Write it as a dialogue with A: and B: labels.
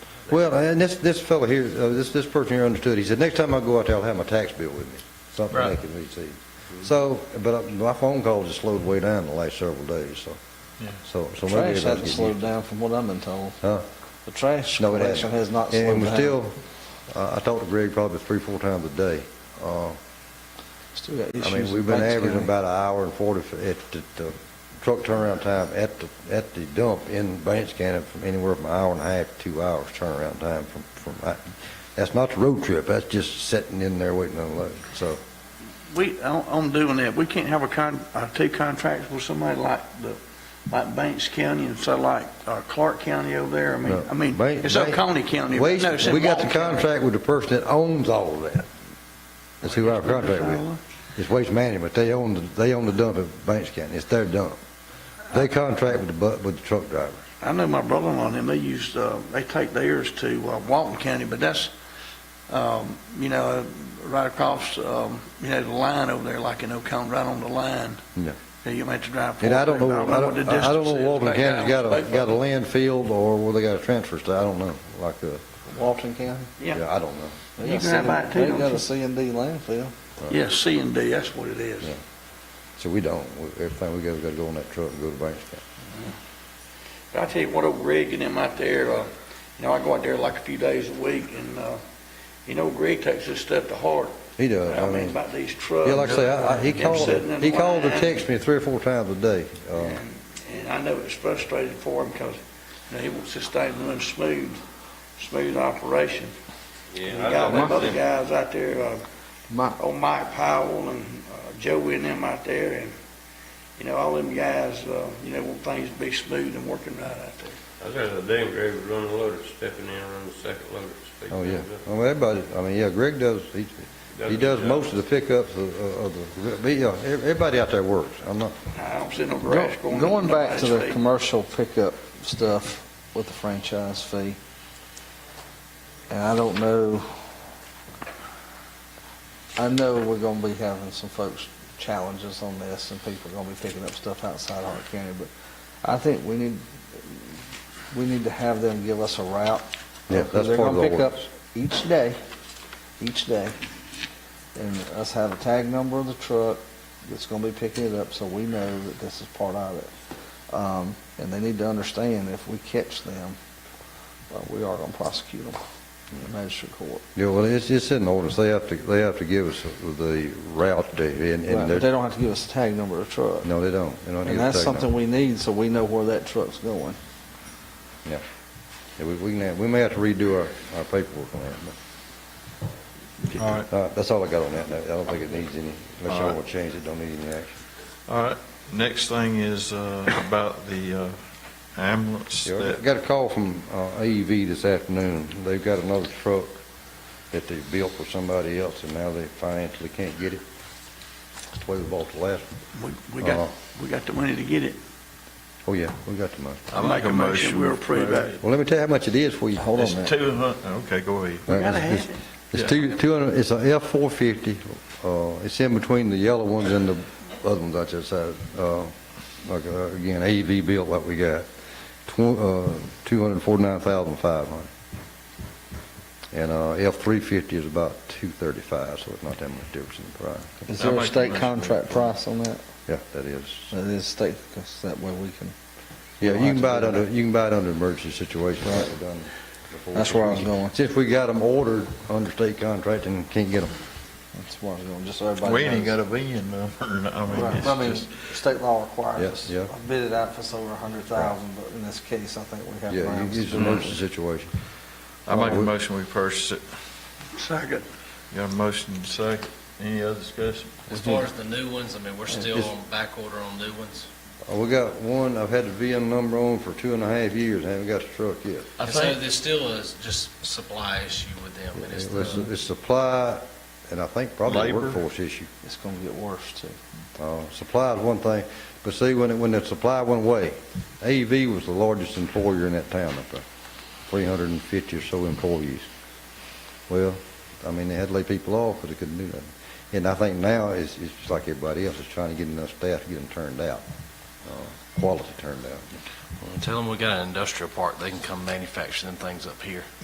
A: Well, uh, and this, this fellow here, uh, this, this person here understood, he said, next time I go out there, I'll have my tax bill with me, something they
B: Right.
A: can receive. So, but uh, my phone calls have slowed way down the last several days, so,
B: Yeah.
A: so, so maybe
C: Trash
A: everybody's
C: hasn't
A: getting
C: slowed
A: used-
C: down from what I've been told.
A: Huh?
C: The trash
A: No, it
C: collection
A: hasn't.
C: has
A: And-
C: not slowed
A: And we
C: down.
A: still, uh, I talked to Greg probably three, four times a day. Uh,
C: Still got
A: I
C: issues
A: mean, we've
C: with
A: been
C: Banks
A: averaging
C: County.
A: about an hour and forty f- at the, the truck turnaround time at the, at the dump in Banks County from anywhere from an hour and a half to two hours turnaround time from, from, I- that's not the road trip, that's just sitting in there waiting to unload, so.
D: We, on, on doing that, we can't have a con, uh, two contracts with somebody like the, like Banks County and so like, uh, Clark County over there, I mean, I mean,
A: Bank-
D: it's up
A: Bank-
D: Coney County.
A: We,
D: no, it's in
A: we got the
D: Walton County.
A: contract with the person that owns all of that. That's who our contract with. It's Waste Management, they own, the they own the dump at Banks County, it's their dump. They contract with the, bu- with the truck driver.
D: I know my brother-in-law and them, they used, uh, they take theirs to, uh, Walton County, but that's, um, you know, right across, um, you know, the line over there, like in Oconee, right on the line.
A: Yeah.
D: Yeah, You might have to drive.
A: And I don't
D: forward.
A: know, I
D: what
A: don't,
D: the
A: I don't
D: distance
A: know
D: is
A: Walton
D: back
A: County's got
D: out.
A: a, got a landfill or where they got a transfer station, I don't know, like, uh,
C: Walton County.
D: Yeah,
A: yeah, I don't know.
C: They
D: You
C: got
D: can have
C: C-
D: that too,
C: They
D: don't
C: got
D: you?
C: a C and D landfill.
D: yeah, C and D, that's what it is.
A: Yeah. So we don't, We- everything we got, we gotta go in that truck and go to Banks County.
D: I tell you what, old Greg and them out there, uh, you know, I go out there like a few days a week and, uh, you know, Greg takes this stuff to heart.
A: He does,
D: I
A: I
D: mean,
A: mean,
D: about these trucks.
A: yeah, like I say, I, I- he
D: them
A: called,
D: sitting in
A: he called or
D: line.
A: texted me three or four times a day, uh,
D: And and I know it's frustrating for him because, you know, he wants this thing to run smooth, smooth operation. We got them other guys out there, uh,
C: Mike,
D: old Mike Powell and uh, Joey and them out there, and, you know, all them guys, uh, you know, want things to be smooth and working right out there.
E: I was at the damn grave with running loaders, stepping in, running the second loader. speed
A: oh, yeah.
E: comes up.
A: I mean, everybody, I mean, yeah, Greg does, he, he does
E: good
A: most
E: job.
A: of the pickups of, of the, but, yeah, ev- everybody out there works, I'm not,
D: I don't see no grass going.
C: Going
D: into
C: back to the
D: nobody's feet.
C: commercial pickup stuff with the franchise fee, and I don't know, I know we're gonna be having some folks challenges on this, and people are gonna be picking up stuff outside Hart County, but I think we need, we need to have them give us a route.
A: yeah,
C: Because
A: that's
C: they're
A: part of
C: gonna
A: the
C: pick up
A: ordinance.
C: Each day, each day, and us have a tag number of the truck that's gonna be picking it up, so we know that this is part of it. Um, and they need to understand if we catch them, uh, we are gonna prosecute them in magistrate court.
A: Yeah, well, it's, it's in the ordinance, they have to, they have to give us the route, they- and,
C: Right,
A: and
C: But
A: they're
C: they don't have to give us a tag number of the truck.
A: No, they don't. They don't get
C: And
A: a
C: that's
A: tag
C: something
A: number.
C: we need, so we know where that truck's going.
A: Yeah, We, we can, have- we may have to redo our, our paperwork on that, but.
B: All right.
A: Uh, That's all I got on that. note. I don't think it needs any, unless
B: All
A: y'all
B: right.
A: want to change it, don't need any action.
B: All right, next thing is uh, about the uh, ambulance
A: Yeah, I
B: that,
A: Got a call from uh, AEV this afternoon. They've got another truck that they built for somebody else, and now they financially can't get it. That's the way we bought the last one.
D: We, we got,
A: Uh-huh.
D: we got the money to get it.
A: Oh, yeah, we got the money.
B: I make a motion.
D: We'll approve that.
A: Well, let me tell you how much it is for you. Hold on a
B: it's
A: minute.
B: two hundred, okay, go ahead.
D: We gotta have it.
A: It's
B: Yeah.
A: two, two hundred, it's a F four fifty, uh, it's in between the yellow ones and the other ones I just had, uh, like, uh, again, AV built like we got. Tw- uh, two hundred and forty-nine thousand five hundred. And, uh, F three fifty is about two thirty-five, so it's not that much difference in the price.
C: Is
B: I
C: there a
B: make a
C: state
B: motion.
C: contract price on that?
A: Yeah, that is.
C: It is state, because that way we can
A: Yeah, you
C: We'll have
A: can
C: to
A: buy it
C: do
A: under, you can buy it under emergency situation.
C: Right.
A: like we've done before.
C: That's where I was going.
A: Since we got them ordered under state contract and can't get them.
C: That's where I was going, just so everybody
B: We ain't got
C: knows.
B: a VIN number, I mean,
C: Right, I mean,
B: it's just,
C: state law requires.
A: Yes, yeah.
C: I bid it out for us over a hundred thousand, but in this case, I think we have.
A: Yeah,
C: grounds
A: you- it's
C: to-
A: an emergency situation. Uh,
B: I make a motion we purchase it.
D: Second.
B: Got a motion and a second, any other discussion?
F: As far as the new ones, I mean, we're still
A: It's-
F: on back order on new ones.
A: Uh, We got one, I've had the VIN number on for two and a half years, haven't got the truck yet.
B: I
F: And so
B: think-
F: there's still is just supply issue with them, and it's
A: It's
F: the,
A: it's supply, and I think probably a
B: Labor.
A: workforce issue.
C: It's gonna get worse too.
A: Uh, Supply is one thing, but see, when, it- when the supply went away, AEV was the largest employer in that town up there, 350 or so employees. Well, I mean, they had to lay people off because they couldn't do that. And I think now, it's, it's just like everybody else, is trying to get enough staff to get them turned out, uh, quality turned out.
F: tell them we got an industrial park, they can come manufacture them things up here.